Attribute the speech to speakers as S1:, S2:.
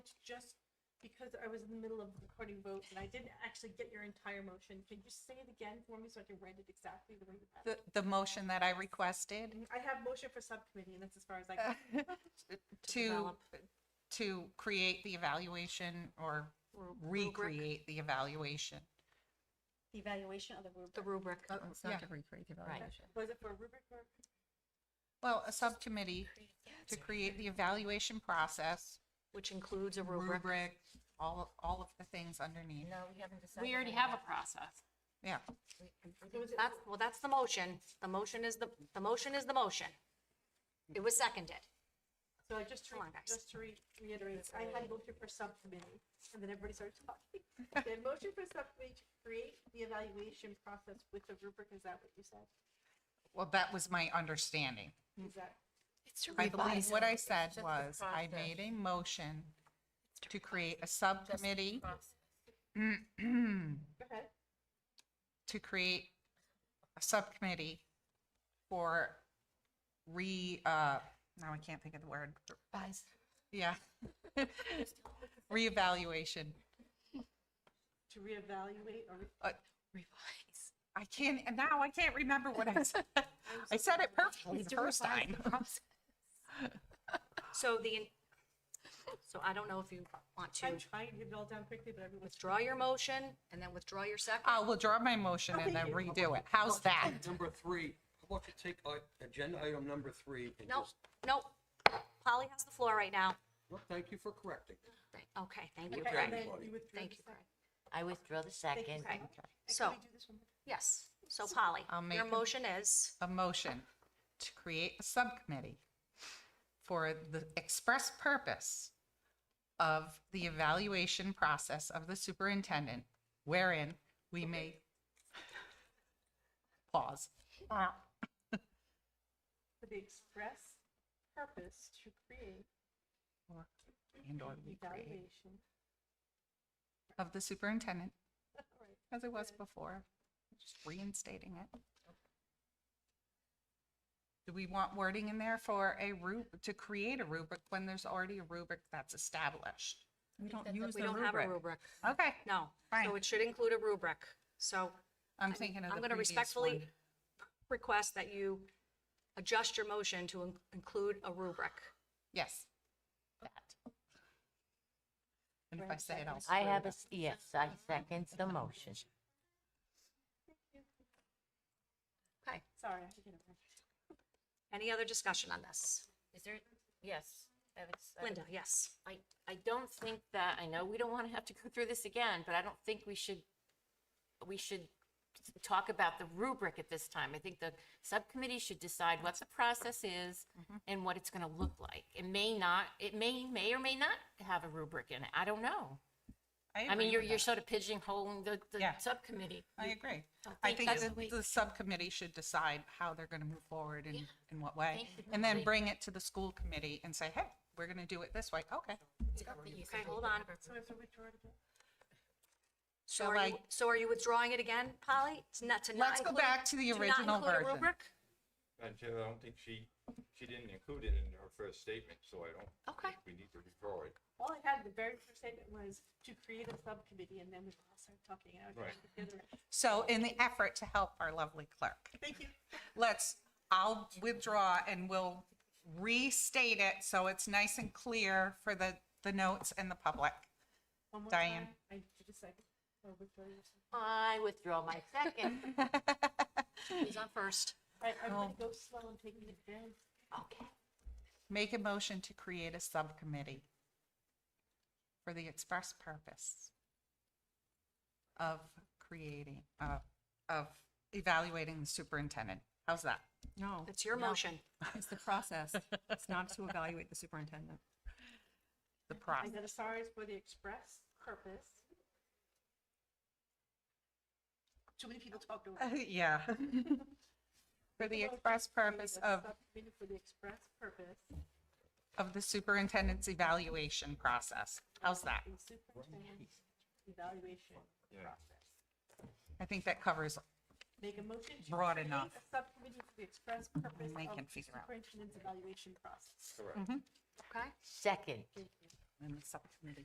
S1: It's just because I was in the middle of recording votes and I didn't actually get your entire motion. Can you just say it again for me so I can write it exactly the way you had it?
S2: The, the motion that I requested
S1: I have motion for subcommittee and that's as far as I can.
S2: to, to create the evaluation or recreate the evaluation.
S3: The evaluation of the rubric.
S4: The rubric.
S5: It's
S2: Yeah.
S5: not to recreate the evaluation.
S1: Was it for a rubric or?
S2: Well, a subcommittee to create the evaluation process,
S4: Which includes a rubric.
S2: rubric, all, all of the things underneath.
S5: No, we haven't decided.
S3: We already have a process.
S2: Yeah.
S4: That's, well, that's the motion. The motion is the, the motion is the motion. It was seconded.
S1: So I just, to
S4: Come on, guys.
S1: just to re- reiterate, I had motion for subcommittee, and then everybody started talking. Then motion for subcommittee to create the evaluation process with the rubric, is that what you said?
S2: Well, that was my understanding.
S4: Hmm.
S1: Is that,
S2: I believe what I said
S5: just the
S2: was I
S5: process.
S2: made a motion to create a subcommittee
S1: go ahead.
S2: to create a subcommittee for re, uh, now I can't think of the word. Yeah. Reevaluation.
S1: To reevaluate or?
S2: I can't, and now I can't remember what I said. I said it perfectly the first time.
S4: So the, so I don't know if you want to
S1: I'm trying to get it all down quickly, but everyone's.
S4: withdraw your motion and then withdraw your uh, second.
S2: I'll withdraw my motion and then redo it. How's that?
S6: Number three, how about you take uh, agenda item number three and
S4: Nope,
S6: just,
S4: nope. Polly has the floor right now.
S6: well, thank you for correcting.
S4: Okay, thank you,
S1: Okay,
S4: Greg.
S1: and then
S6: Everybody.
S1: you withdrew
S4: Thank
S1: the
S4: you,
S1: second.
S7: I withdraw the
S1: Thank you
S7: second.
S1: so much. And
S4: So-
S1: Can we do this one? more time?
S4: Yes, so Polly,
S2: I'll make
S4: your
S2: a-
S4: motion is,
S2: A motion to create a subcommittee for the express purpose of the evaluation process of the superintendent wherein we may pause.
S1: For the express purpose to create
S2: Or- And or recreate
S1: evaluation.
S2: of the superintendent
S1: All right.
S2: as it was before, just reinstating it. Do we want wording in there for a rub, to create a rubric when there's already a rubric that's established?
S5: We don't
S4: we don't have a rubric.
S2: Okay,
S4: No, so
S2: Fine.
S4: it should include a rubric. So
S2: I'm thinking of
S4: I'm
S2: the
S4: going to
S2: previous one.
S4: respectfully request that you adjust your motion to in- include a rubric.
S2: Yes. That. And if I say it, I'll
S7: I
S2: screw it
S7: have a,
S2: up.
S7: s- yes, I second the motion.
S4: Okay,
S1: Sorry, I had to get it right.
S4: any other discussion on this?
S5: Is there, yes. I have a s- I have a-
S4: Linda, yes.
S5: I, I don't think that, I know we don't want to have to go through this again, but I don't think we should, we should talk about the rubric at this time. I think the subcommittee should decide what the process is
S7: Mm-hmm.
S5: and what it's going to look like. It may not, it may, may or may not have a rubric in it. I don't know. I
S2: agree
S5: mean, you're,
S2: with
S5: you're
S2: that.
S5: sort of pigeonholing the, the
S2: Yeah.
S5: subcommittee.
S2: I agree. I think
S5: that's-
S2: that the subcommittee should decide how they're going to move forward and in what way.
S5: Thank you.
S2: And then bring it to the school committee and say, hey, we're going to do it this way. Okay.
S4: Okay, hold on.
S1: So I have to withdraw it again?
S4: So
S2: So
S4: are you,
S2: I-
S4: so are you withdrawing it again, Polly? To not, to not
S2: Let's go
S4: include-
S2: back to the
S4: not
S2: original
S4: include a
S2: version.
S4: rubric?
S8: Madam Chair, I don't think she, she didn't include it in her first statement, so I don't.
S4: Okay.
S8: think We need to withdraw it.
S1: All I had, the very first statement was to create a subcommittee, and then we all started talking. and I was
S8: Right.
S1: trying to get it right.
S2: So in the effort to help our lovely clerk,
S1: Thank you.
S2: let's, I'll withdraw and we'll restate it so it's nice and clear for the, the notes and the public.
S1: One more
S2: Diane.
S1: time. I did a second. Oh, Victoria, you said-
S7: I withdraw my second.
S4: Who's on first?
S1: All right, everybody go slow. I'm taking it down.
S4: Okay.
S2: Make a motion to create a subcommittee for the express purpose of creating, uh, of evaluating the superintendent. How's that?
S5: No.
S4: It's your
S5: no.
S4: motion.
S5: It's the process. It's not to evaluate the superintendent.
S2: The
S1: I
S2: process.
S1: got a sorry for the express purpose. Too many people talked over. me.
S2: Yeah. For the express purpose
S1: Create a
S2: of,
S1: subcommittee For the express purpose.
S2: of the superintendent's evaluation process. How's that?
S1: of the superintendent's Evaluation
S8: Yeah.
S1: process.
S2: I think that covers
S1: Make a motion to.
S2: Broad
S1: create
S2: enough.
S1: A subcommittee for the express purpose
S2: They
S1: of
S2: can
S1: the
S2: figure out.
S1: superintendent's evaluation process.
S8: Correct.
S4: Okay.
S7: Second.
S2: in the subcommittee.